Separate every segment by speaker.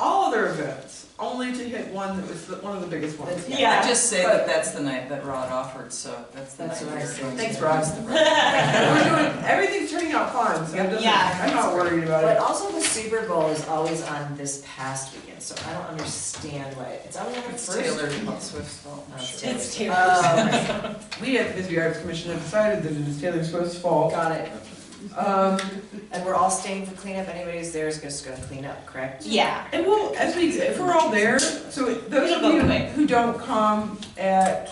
Speaker 1: other events, only to hit one that was the- one of the biggest ones.
Speaker 2: Yeah.
Speaker 3: I just say that that's the night that Rod offered, so that's the night.
Speaker 2: That's what I
Speaker 3: we're
Speaker 2: said.
Speaker 3: going to-
Speaker 1: Thanks, Rod.
Speaker 3: That's the right-
Speaker 1: We're doing, everything's turning out fine, so it doesn't-
Speaker 2: Yeah.
Speaker 1: I'm not worried about
Speaker 2: But
Speaker 1: it.
Speaker 2: also the Super Bowl is always on this past weekend, so I don't understand why it's always on the
Speaker 3: It's
Speaker 2: first.
Speaker 3: Taylor Swift's fault.
Speaker 2: Oh, it's
Speaker 3: Sure.
Speaker 2: Taylor.
Speaker 4: It's Taylor.
Speaker 2: Oh,
Speaker 1: We at the Bisbee Arts Commission have decided that it is Taylor Swift's fault.
Speaker 2: Oh, got it.
Speaker 1: Um,
Speaker 2: And we're all staying for cleanup. Anybody who's there is just gonna clean up, correct?
Speaker 4: Yeah.
Speaker 1: And we'll, as we, if we're all there, so those of
Speaker 4: It'll go
Speaker 1: you
Speaker 4: quick.
Speaker 1: who don't come at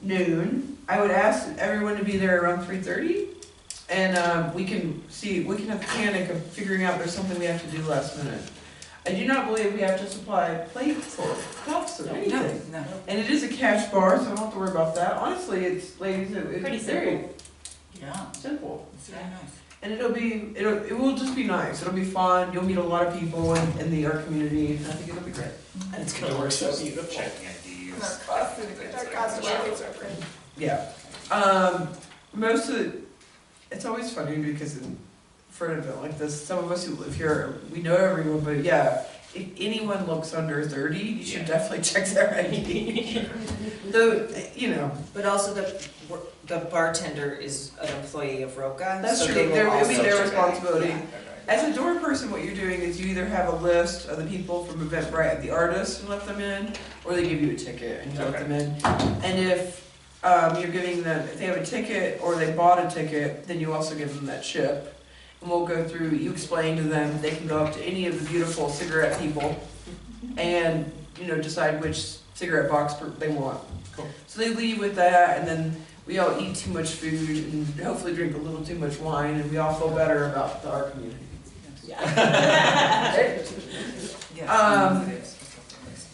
Speaker 1: noon, I would ask everyone to be there around three thirty. And, um, we can see, we can have panic of figuring out there's something we have to do last minute. I do not believe we have to supply plates or cups or
Speaker 3: No,
Speaker 1: anything.
Speaker 3: no.
Speaker 1: And it is a cash bar, so I don't have to worry about that. Honestly, it's, ladies, it-
Speaker 4: Pretty
Speaker 1: it's very
Speaker 3: Yeah,
Speaker 1: simple.
Speaker 3: it's very nice.
Speaker 1: And it'll be, it'll, it will just be nice, it'll be fun, you'll meet a lot of people in, in the art community, and I think it'll be great.
Speaker 2: And it's gonna work so beautiful.
Speaker 5: Checking IDs.
Speaker 1: Yeah. Um, most of the, it's always funny because in, for an event like this, some of us who live here, we know everyone, but yeah, if anyone looks under thirty, you should
Speaker 5: Yeah.
Speaker 1: definitely check their ID. Though, you know,
Speaker 2: But also the, the bartender is an employee of Roca,
Speaker 1: That's
Speaker 2: so
Speaker 1: true.
Speaker 2: they will
Speaker 1: They're- it'll be
Speaker 2: also
Speaker 1: their
Speaker 2: check it.
Speaker 1: responsibility.
Speaker 2: Yeah.
Speaker 1: As a door person, what you're doing is you either have a list of the people from Eventbrite, the artists, and let them in, or they give you a ticket and you let
Speaker 5: Okay.
Speaker 1: them in. And if um, you're giving them, if they have a ticket or they bought a ticket, then you also give them that chip. And we'll go through, you explain to them, they can go up to any of the beautiful cigarette people and, you know, decide which cigarette box per- they want.
Speaker 5: Cool.
Speaker 1: So they leave with that, and then we all eat too much food and hopefully drink a little too much wine, and we all feel better about the, our community.
Speaker 3: Yes,
Speaker 1: Um,
Speaker 3: it is. It's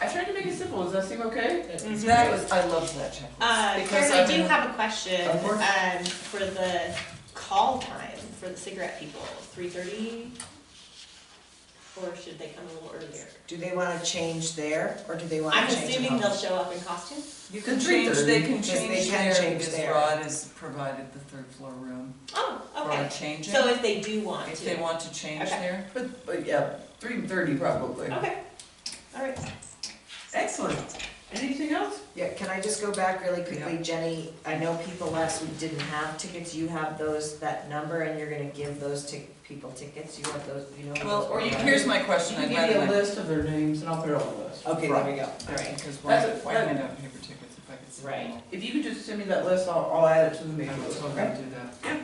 Speaker 1: I tried to make it simple. Does that seem okay?
Speaker 3: okay. That was, I loved that
Speaker 4: Mm-hmm. Uh,
Speaker 3: checklist. because
Speaker 4: Karen, I
Speaker 3: I'm
Speaker 4: do
Speaker 3: in-
Speaker 4: have a question,
Speaker 1: Of course.
Speaker 4: um, for the call time for the cigarette people, three thirty? Or should they come a little earlier?
Speaker 2: Do they wanna change there, or do they wanna
Speaker 4: I'm
Speaker 2: change?
Speaker 4: assuming they'll show up in costume?
Speaker 3: You can
Speaker 1: The
Speaker 3: change, they
Speaker 1: 3:30,
Speaker 3: can
Speaker 2: because they
Speaker 3: change
Speaker 2: can
Speaker 3: there
Speaker 2: change
Speaker 3: because
Speaker 2: there.
Speaker 3: Rod has provided the third floor room.
Speaker 4: Oh,
Speaker 3: Or
Speaker 4: okay.
Speaker 3: change it.
Speaker 4: So if they do want
Speaker 3: If
Speaker 4: to.
Speaker 3: they want to change
Speaker 4: Okay.
Speaker 3: there,
Speaker 1: But, but yeah, three thirty probably.
Speaker 4: Okay, all right.
Speaker 1: Excellent. Anything else?
Speaker 2: Yeah, can I just go back really quickly,
Speaker 3: Yeah.
Speaker 2: Jenny? I know people last week didn't have tickets, you have those, that number, and you're gonna give those tic- people tickets, you have those, you know? who
Speaker 3: well,
Speaker 2: those
Speaker 3: or you,
Speaker 2: are, right?
Speaker 3: here's my question,
Speaker 1: Give
Speaker 3: I'd
Speaker 1: me
Speaker 3: rather
Speaker 1: a
Speaker 3: like,
Speaker 1: list of their names and I'll put it on the list.
Speaker 2: Okay, there we go, all right.
Speaker 3: because why,
Speaker 1: That's a-
Speaker 3: why
Speaker 1: that-
Speaker 3: hand out paper tickets if I could see
Speaker 2: Right.
Speaker 3: them all?
Speaker 1: If you could just send me that list, I'll, I'll add it to the
Speaker 3: I
Speaker 1: mailing
Speaker 3: will
Speaker 1: list.
Speaker 3: totally do that.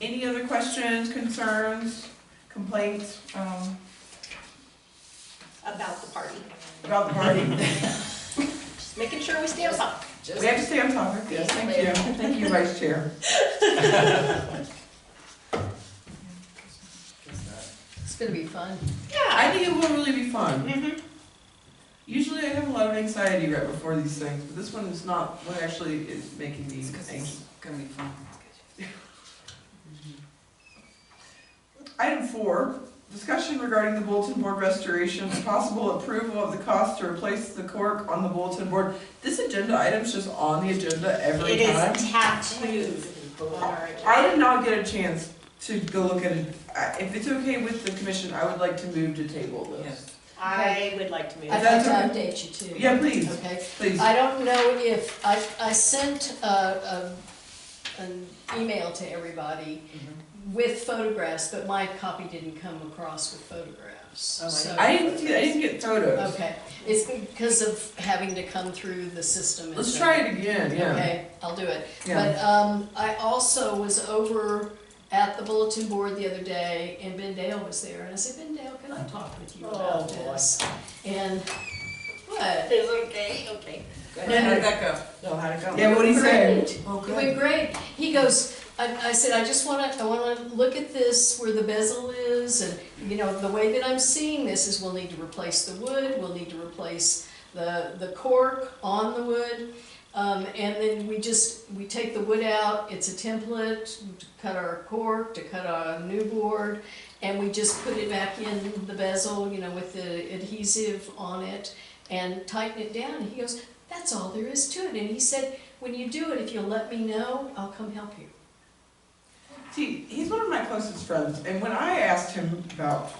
Speaker 1: Any other questions, concerns, complaints
Speaker 3: Um,
Speaker 4: About the party,
Speaker 1: about the party?
Speaker 4: just making sure we stay on top.
Speaker 1: We have to stay on topic. Yes, thank you. Thank you, Vice Chair.
Speaker 6: It's gonna be fun.
Speaker 4: Yeah.
Speaker 1: I think it will really be fun.
Speaker 4: Mm-hmm.
Speaker 1: Usually I have a lot of anxiety right before these things, but this one is not what actually is making me
Speaker 3: it's 'cause
Speaker 1: anxious.
Speaker 3: it's gonna be fun.
Speaker 1: Item four, discussion regarding the bulletin board restoration, possible approval of the cost to replace the cork on the bulletin board. This agenda item's just on the agenda every
Speaker 4: It
Speaker 1: time.
Speaker 4: is tattooed on our
Speaker 1: I did not get a chance to go look at it. I- If it's okay with the commission, I would like to move to table this.
Speaker 3: Yes.
Speaker 4: I would like to move.
Speaker 6: I'd
Speaker 4: it.
Speaker 6: like
Speaker 1: That's
Speaker 6: to update you too.
Speaker 1: Yeah, please,
Speaker 6: Okay,
Speaker 1: please.
Speaker 6: I don't know if, I, I sent uh, a, an email to everybody with photographs, but my copy didn't come across with photographs,
Speaker 2: Oh, I
Speaker 6: so.
Speaker 1: I didn't, see- I didn't get photos.
Speaker 6: Okay, it's because of having to come through the system. and
Speaker 1: Let's
Speaker 6: so-
Speaker 1: try it again, yeah.
Speaker 6: Okay, I'll do it.
Speaker 1: Yeah.
Speaker 6: But um, I also was over at the bulletin board the other day, and Ben Dale was there, and I said, Ben Dale, can I talk with you about
Speaker 2: Oh, boy.
Speaker 6: this? And, what?
Speaker 4: It's okay, okay.
Speaker 3: And Rebecca,
Speaker 2: Know how to go.
Speaker 1: Yeah, what'd he say?
Speaker 6: Great.
Speaker 3: Oh,
Speaker 6: It went great. He goes, I, I said, I just wanna, I wanna look at this where the bezel is, and, you know, the way that I'm seeing this is we'll need to replace the wood, we'll need to replace the, the cork on the wood. Um, and then we just, we take the wood out, it's a template to cut our cork, to cut our new board, and we just put it back in the bezel, you know, with the adhesive on it, and tighten it down. And he goes, that's all there is to it. And he said, when you do it, if you'll let me know, I'll come help you.
Speaker 1: See, he's one of my closest friends, and when I asked him about